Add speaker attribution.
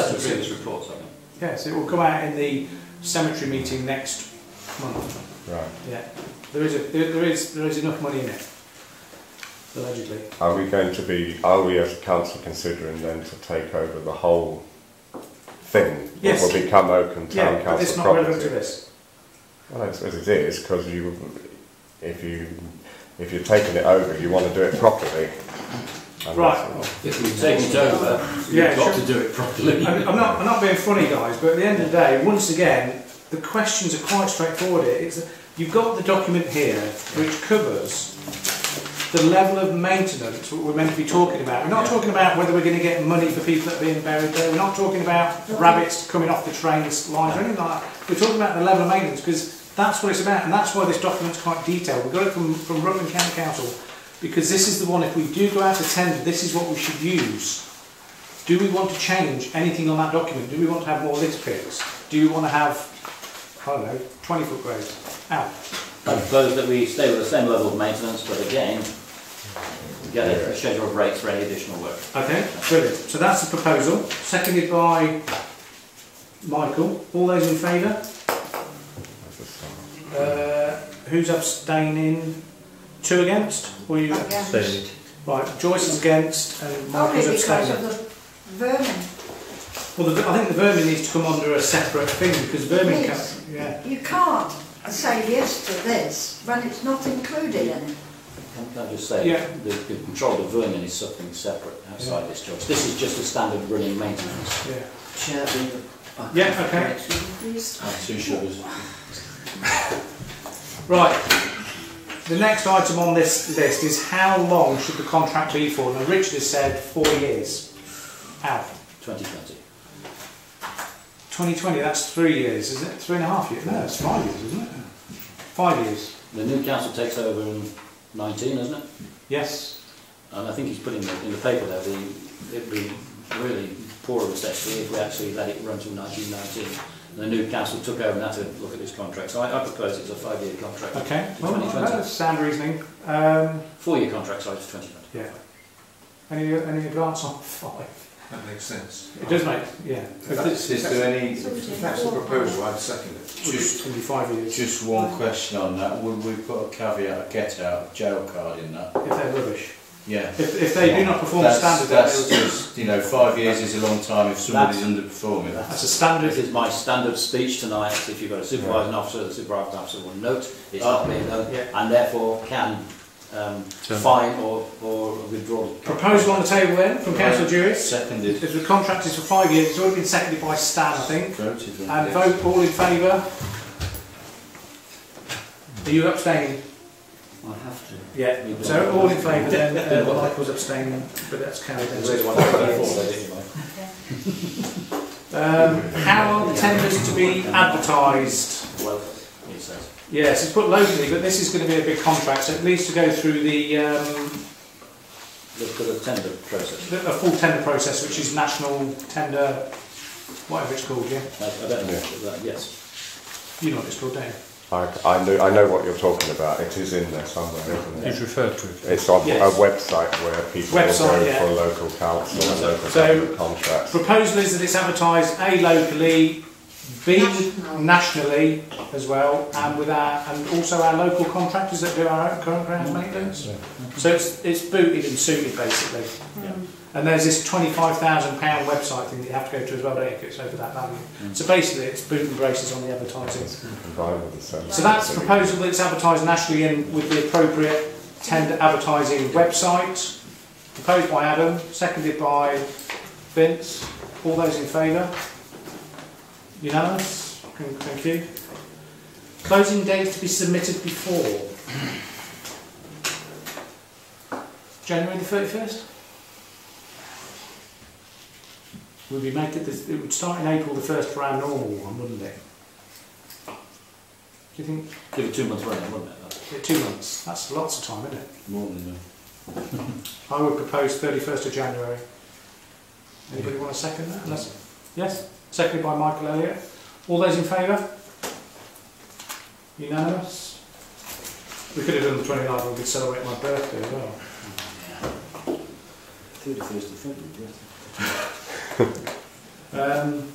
Speaker 1: Yes, it will come out in the cemetery meeting next month.
Speaker 2: Right.
Speaker 1: Yeah, there is a, there, there is there is enough money in it allegedly.
Speaker 2: Are we going to be, are we as a council considering then to take over the whole thing?
Speaker 1: Yes.
Speaker 2: It will become Oakham Town
Speaker 1: Yeah,
Speaker 2: Council
Speaker 1: but it's not
Speaker 2: property.
Speaker 1: relevant to this.
Speaker 2: Well, it's, as it is, because you, if you, if you're taking it over, you want to do it properly. And
Speaker 1: Right.
Speaker 2: that's-
Speaker 3: If we take it over,
Speaker 1: Yeah,
Speaker 3: you've got
Speaker 1: sure.
Speaker 3: to do it properly.
Speaker 1: I'm, I'm not I'm not being funny, guys, but at the end of the day, once again, the questions are quite straightforward. It's you've got the document here which covers the level of maintenance what we're meant to be talking about. We're not talking about whether we're going to get money for people that are being buried there. We're not talking about rabbits coming off the trains lines or anything like that. We're talking about the level of maintenance because that's what it's about, and that's why this document's quite detailed. We got it from from Rutland County Council because this is the one. If we do go out to tender, this is what we should use. Do we want to change anything on that document? Do we want to have more lift pits? Do we want to have, I don't know, 20 foot grades? Out.
Speaker 4: I propose that we stay with the same level of maintenance, but again, get a schedule of rates for any additional work.
Speaker 1: Okay, brilliant. So that's the proposal, seconded by Michael. All those in favour?
Speaker 2: that's the start.
Speaker 1: Uh, who's abstaining? Two against? Or you?
Speaker 5: Abstained.
Speaker 1: Right, Joyce is against and
Speaker 5: Only
Speaker 1: Michael's
Speaker 5: because of
Speaker 1: abstaining.
Speaker 5: the vermin.
Speaker 1: Well, the, I think the vermin needs to come under a separate thing because vermin can,
Speaker 5: Yes.
Speaker 1: yeah.
Speaker 5: You can't say yes to this when it's not included in it.
Speaker 4: Can can I just say,
Speaker 1: Yeah.
Speaker 4: the, the control of vermin is something separate outside this job. This is just a standard running maintenance.
Speaker 1: Yeah,
Speaker 6: Chair,
Speaker 1: yeah okay.
Speaker 4: And two sugars.
Speaker 1: Right. The next item on this list is how long should the contract be for? Now, Richard has said four years. Out.
Speaker 4: 2020.
Speaker 1: 2020, that's three years, isn't it? Three and a half years? No, it's five years, isn't it? Five years.
Speaker 4: The new council takes over in 19, isn't it?
Speaker 1: Yes.
Speaker 4: And I think he's put in the, in the paper there, the, it'd be really poor of us actually if we actually let it run to 1919. And the new council took over and had to look at this contract. So I, I propose it's a five-year contract.
Speaker 1: Okay.
Speaker 4: To
Speaker 1: Well,
Speaker 4: 2020.
Speaker 1: that's sound reasoning. Um,
Speaker 4: Four-year contract, sorry, to 2020.
Speaker 1: yeah. Any, any advance on five?
Speaker 7: That makes sense.
Speaker 1: It does make, yeah.
Speaker 7: If that's, is there any,
Speaker 5: So we do
Speaker 7: if that's the
Speaker 5: four.
Speaker 7: proposal, I'd second it.
Speaker 1: Just 25 years.
Speaker 8: Just one question on that, would we put a caveat, a get out jail card in that?
Speaker 1: If they're rubbish.
Speaker 8: Yeah.
Speaker 1: If, if they do not perform
Speaker 8: That's-
Speaker 1: standard,
Speaker 8: That's
Speaker 1: that's,
Speaker 8: just, you know, five years is a long time if somebody's underperforming.
Speaker 1: that's a standard.
Speaker 4: This is my standard speech tonight, if you've got a supervising officer, the supervising officer will note it's not being done,
Speaker 1: Yeah.
Speaker 4: and therefore can um, fine or, or withdraw.
Speaker 1: Proposal on the table then from Councillor Jewis.
Speaker 8: Seconded,
Speaker 1: If the contract is for five years, it's already been seconded by Stan, I think.
Speaker 8: voted on.
Speaker 1: And
Speaker 8: it.
Speaker 1: vote all in favour. Are you abstaining?
Speaker 4: I have to.
Speaker 1: Yeah. So all in favour then, uh, Michael's abstaining, but that's carried then. so it's five years. Um, how are the tenders to be advertised?
Speaker 4: Well, he says.
Speaker 1: Yes, it's put locally, but this is going to be a big contract, so it needs to go through the, um,
Speaker 4: Look at the tender process.
Speaker 1: the, a full tender process, which is national tender, whatever it's called, yeah?
Speaker 4: I, I don't know, that, yes.
Speaker 1: You know what it's called, don't you?
Speaker 2: I, I know, I know what you're talking about, it is in there somewhere, isn't it?
Speaker 3: He's referred to it.
Speaker 2: It's on
Speaker 1: Yes.
Speaker 2: a website where people
Speaker 1: Website,
Speaker 2: will go
Speaker 1: yeah.
Speaker 2: for local council and local
Speaker 1: So-
Speaker 2: government contracts.
Speaker 1: Proposal is that it's advertised A locally, B
Speaker 5: National.
Speaker 1: nationally as well, and with our and also our local contractors that do our own current grounds maintenance. So it's it's booted and suited basically.
Speaker 4: Yeah.
Speaker 1: And there's this twenty-five thousand pound website thing that you have to go to as well, don't you, if it's over that value. So basically, it's boot and braces on the advertising.
Speaker 2: combined with the centre.
Speaker 1: So that's a proposal that's advertised nationally and with the appropriate tender advertising website. Proposed by Adam, seconded by Vince. All those in favour? Unanimous? Thank thank you. Closing date to be submitted before? January the 31st? Would we make it, this- it would start in April the 1st for our normal one, wouldn't it? Do you think
Speaker 4: Give it two months running, wouldn't it?
Speaker 1: yeah, Two months. That's lots of time, isn't it?
Speaker 8: More than
Speaker 1: I would propose 31st of January. Anybody want to second that? Unless- yes? Seconded by Michael Elliott. All those in favour? Unanimous? We could have done the 29th, we could celebrate my birthday as well.
Speaker 4: Thirty-first of February, yes.
Speaker 1: Um,